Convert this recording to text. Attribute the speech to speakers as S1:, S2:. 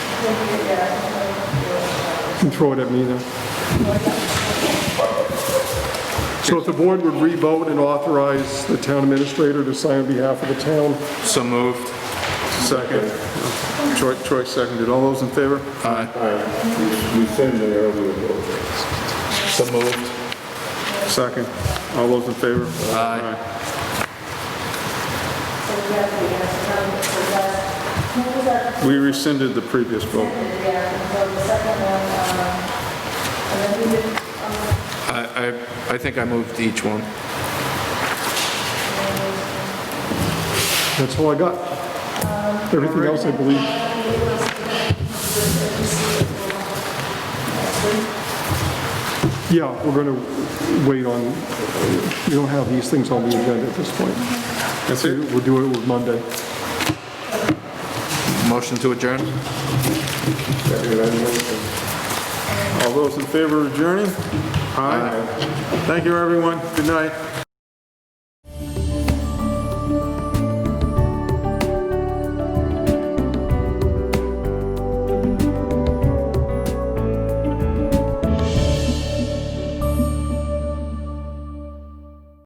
S1: can throw it at me then. So if the board would re-vote and authorize the town administrator to sign on behalf of the town,
S2: So moved.
S3: Second. Troy, Troy seconded. All those in favor?
S2: Aye.
S4: We send the earlier vote.
S2: So moved.
S3: Second. All those in favor?
S2: Aye.
S3: Aye. We rescinded the previous vote.
S2: I, I, I think I moved each one.
S1: that's all I got. Everything else, I believe. Yeah, we're going to wait on, we don't have these things on the agenda at this point.
S3: That's it?
S1: We'll do it with Monday.
S2: Motion to adjourn?
S3: All those in favor of adjourning? Aye. Thank you, everyone. Good night.